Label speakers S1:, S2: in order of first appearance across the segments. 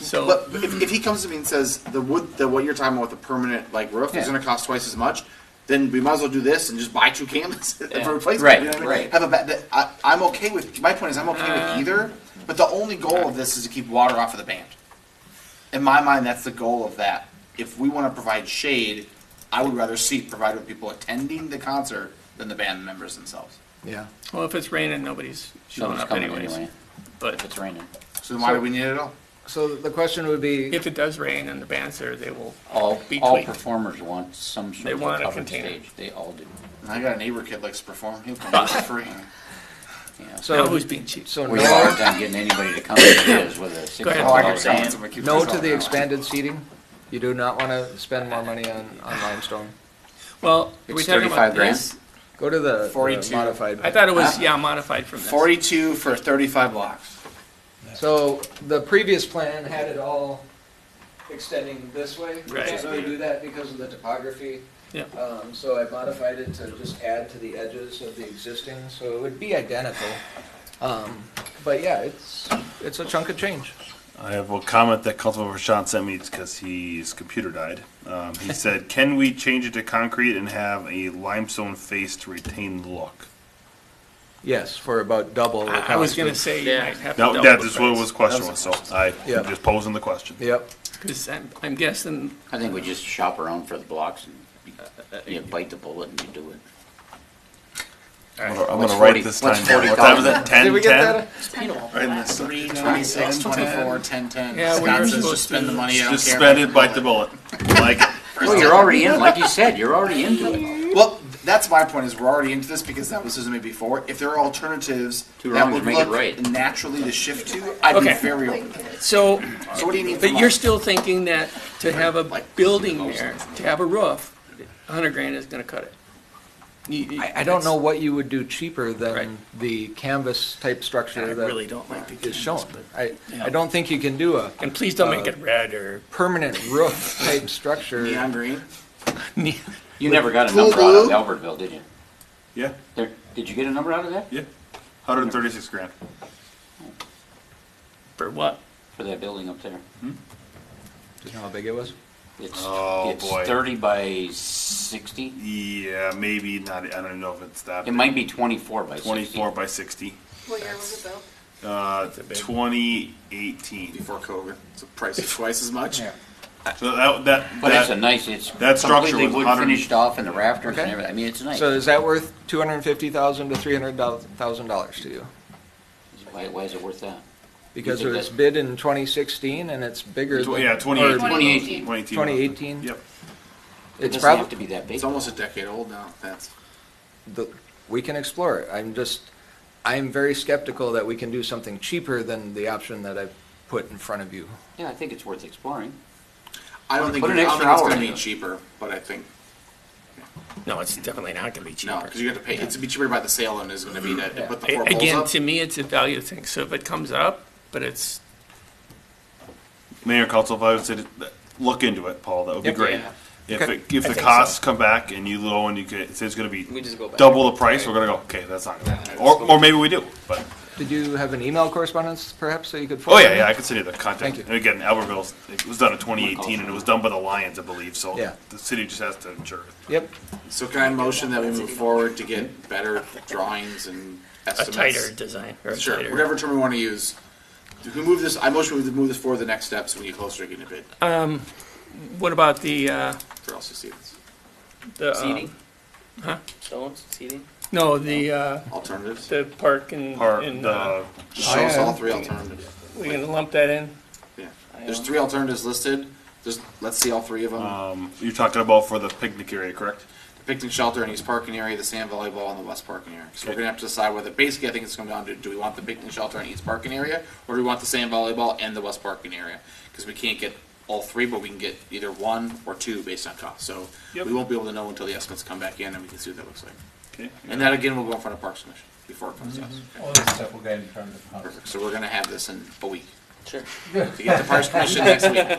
S1: So,
S2: But if, if he comes to me and says the wood, the what you're talking about with the permanent like roof
S3: Yeah.
S2: is going to cost twice as much, then we might as well do this and just buy two canvases
S1: Yeah.
S2: for replacement.
S3: Right,
S2: you know what I mean?
S3: right.
S2: Have a ba- that I, I'm okay with. My point is I'm okay with either. But the only goal of this is to keep water off of the band. In my mind, that's the goal of that. If we want to provide shade, I would rather see it provided with people attending the concert than the band members themselves.
S4: Yeah.
S1: well, if it's raining, nobody's showing
S3: Nobody's
S1: up
S3: coming
S1: anyways.
S3: anyway, if
S1: But
S3: it's raining.
S2: So then why do we need it at all?
S4: So the question would be,
S1: if it does rain and the band's there, they will
S3: All,
S1: be
S3: all
S1: tweaked.
S3: performers want some
S1: They
S3: sort of
S1: want a
S3: covered
S1: container.
S3: stage, they all do,
S2: And I got a neighbor kid likes to perform. He'll come for free.
S3: yeah.
S1: Now
S4: so,
S1: who's being cheap?
S4: so
S3: We have a hard
S4: no,
S3: time getting anybody to come to this with a six
S1: ahead.
S2: Oh, I
S3: dollar
S2: can
S3: band.
S4: no to the expanded seating? You do not want to spend more money on, on limestone?
S1: Well, are we
S3: It's
S1: talking about
S3: 35 grand?
S1: this?
S4: Go to the the
S2: 42.
S4: modified.
S1: I thought it was, yeah, modified from this.
S2: Forty-two for thirty-five blocks.
S4: So the previous plan had it all extending this way. We
S1: Right.
S4: Can't really do that because of the topography.
S1: Yeah.
S4: Um, so I modified it to just add to the edges of the existing, so it would be identical. Um, but yeah, it's, it's a chunk of change.
S5: I have a comment that Cultivar Prashant sent me because his computer died. Um, he said, "Can we change it to concrete and have a limestone face to retain the look?"
S4: Yes, for about double the
S1: I I was
S4: cost
S1: gonna
S4: of-
S1: say you might have to
S5: No,
S1: double
S5: that
S1: the
S5: is what
S1: price.
S5: was question was. So I
S4: Yeah.
S5: am just posing the question.
S4: Yep,
S1: 'Cause I'm, I'm guessing,
S3: I think we just shop around for the blocks and
S1: Uh,
S3: you- you bite the bullet and you do it.
S5: I'm gonna, I'm
S3: What's
S5: gonna write
S3: 40
S5: this time
S3: what's
S5: down.
S3: 40
S5: What time is it?
S3: dollars?
S5: Ten.
S4: Did we get that?
S5: Right in this.
S2: Three, twenty-six, twenty-four, ten-ten.
S1: Yeah, we were
S2: Scott says
S1: supposed
S2: just spend
S1: to-
S2: the money, I don't care.
S5: Just spend it, bite the bullet. Like it.
S3: Well, you're already in, like you said, you're already into it.
S2: Well, that's my point, is we're already into this because that was Susan made before. If there are alternatives
S3: Two
S2: that
S3: wrongs
S2: would
S3: make it
S2: look
S3: right.
S2: naturally to shift to, I'd be
S1: Okay.
S2: very open to it.
S1: so,
S2: So what do you need from
S1: but you're
S2: us?
S1: still thinking that to have a building there, to have a roof, a hundred grand is gonna cut it. You- you-
S4: I, I don't know what you would do cheaper
S1: Right.
S4: than the canvas type
S1: I
S4: structure
S1: really
S4: that
S1: don't like the
S4: is
S1: canvas,
S4: shown.
S1: but,
S4: I, I don't think you can do a
S1: and please
S4: Uh,
S1: don't make it red or
S4: permanent roof type structure.
S2: Neon green?
S3: You never got a
S2: Cool
S3: number out of
S2: blue.
S3: Albertville, did you?
S5: Yeah,
S3: There, did you get a number out of that,
S5: yeah. 136 grand.
S1: for what?
S3: for that building up there?
S4: Do you know how big it was?
S3: It's,
S5: Oh,
S3: it's
S5: boy.
S3: thirty by sixty,
S5: Yeah, maybe not. I don't even know if it's that.
S3: it might be twenty-four by sixty.
S5: 24 by 60.
S6: What year was it
S5: Uh, 2018.
S2: Before COVID, it's a price of twice as much.
S5: So that that,
S3: But it's a
S5: that
S3: nice, it's
S5: that structure
S3: completely
S5: was
S3: wood
S5: 100
S3: finished off and the rafters and
S4: Okay.
S3: everything, I mean, it's nice.
S4: So is that worth two hundred and fifty thousand to three hundred thousand dollars to you?
S3: Why, why is it worth that?
S4: Because it
S3: Because
S4: was
S3: that-
S4: bid in twenty sixteen and it's bigger
S5: tw-
S4: than.
S5: yeah 2018.
S3: 2018.
S5: 2018.
S4: 2018.
S3: It
S5: Yep.
S4: It's
S3: doesn't have to
S4: probably,
S3: be that big.
S2: It's almost a decade old now, that's.
S4: we can explore it. I'm just, I'm very skeptical that we can do something cheaper than the option that I put in front of you.
S3: Yeah, I think it's worth exploring.
S2: I don't think,
S3: Put
S2: I
S3: an
S2: don't
S3: extra
S2: think it's
S3: hour
S2: gonna
S3: in
S2: be
S3: it.
S2: cheaper, but I think,
S1: No, it's definitely not gonna be
S2: no,
S1: cheaper. Mm-hmm.
S2: because you have to pay, it's gonna be cheaper by the sale than it is gonna be to to put the
S1: A-
S2: four
S1: Again,
S2: poles
S1: to
S2: up.
S1: me, it's a value thing, so if it comes up, but it's,
S5: Mayor Council, if I would say, to- look into it, Paul, that would be
S4: Yep.
S5: great.
S2: Yeah.
S5: If,
S4: Okay.
S5: it- if the costs come back and you low and you could, it says it's gonna be
S7: We just go back.
S5: double the price, we're gonna go, okay, that's not gonna happen. Or, or maybe we do, but,
S4: Did you have an email correspondence perhaps that you could
S5: oh
S4: forward?
S5: yeah, yeah, I can send you the
S4: Thank
S5: contact.
S4: you.
S5: And again, Albertville's, it was done in twenty eighteen and it was done by the Lions, I believe, so
S4: Yeah.
S5: the city just has to ensure. it.
S4: Yep,
S2: So can I motion that we move forward to get better drawings and
S1: a
S2: estimates?
S1: tighter design, or a
S2: Sure,
S1: tighter-
S2: whatever term we want to use. Who move this, I motion we move this forward to the next steps when you get closer to getting a bid
S1: What about the, uh,
S2: for LCCs.
S1: the, um,
S7: Seating? Stones, seating?
S1: no, the, uh,
S2: Alternatives?
S1: the park and,
S5: Or
S1: and, uh,
S5: the,
S2: Just show us
S4: yeah.
S2: all three alternatives.
S1: we gonna lump that in?
S2: Yeah, there's three alternatives listed, just, let's see all three of them.
S5: um, you're talking about for the picnic area, correct?
S2: Picnic shelter in East Parking area, the sand volleyball, and the West Parking area. So we're gonna have to decide whether, basically, I think it's gonna come down to, do we want the picnic shelter in East Parking area? Or do we want the sand volleyball and the West Parking area? Because we can't get all three, but we can get either one or two based on cost. So we
S5: Yep.
S2: won't be able to know until the estimates come back in and we can see what that looks like.
S5: Okay.
S2: And that again will go in front of Parks Commission before it comes to us.
S8: All this stuff will get in front of the house.
S2: Perfect. So we're gonna have this in a week.
S7: Sure.
S2: To get to Parks Commission next week.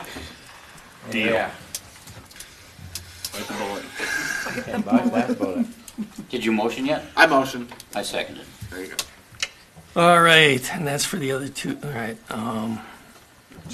S5: Deal.
S8: Yeah.
S5: Bite the bullet.
S8: And buy that bullet.
S3: Did you motion yet?
S2: I motion.
S3: I seconded.
S2: There you go.
S1: All right, and that's for the other two, all right, um,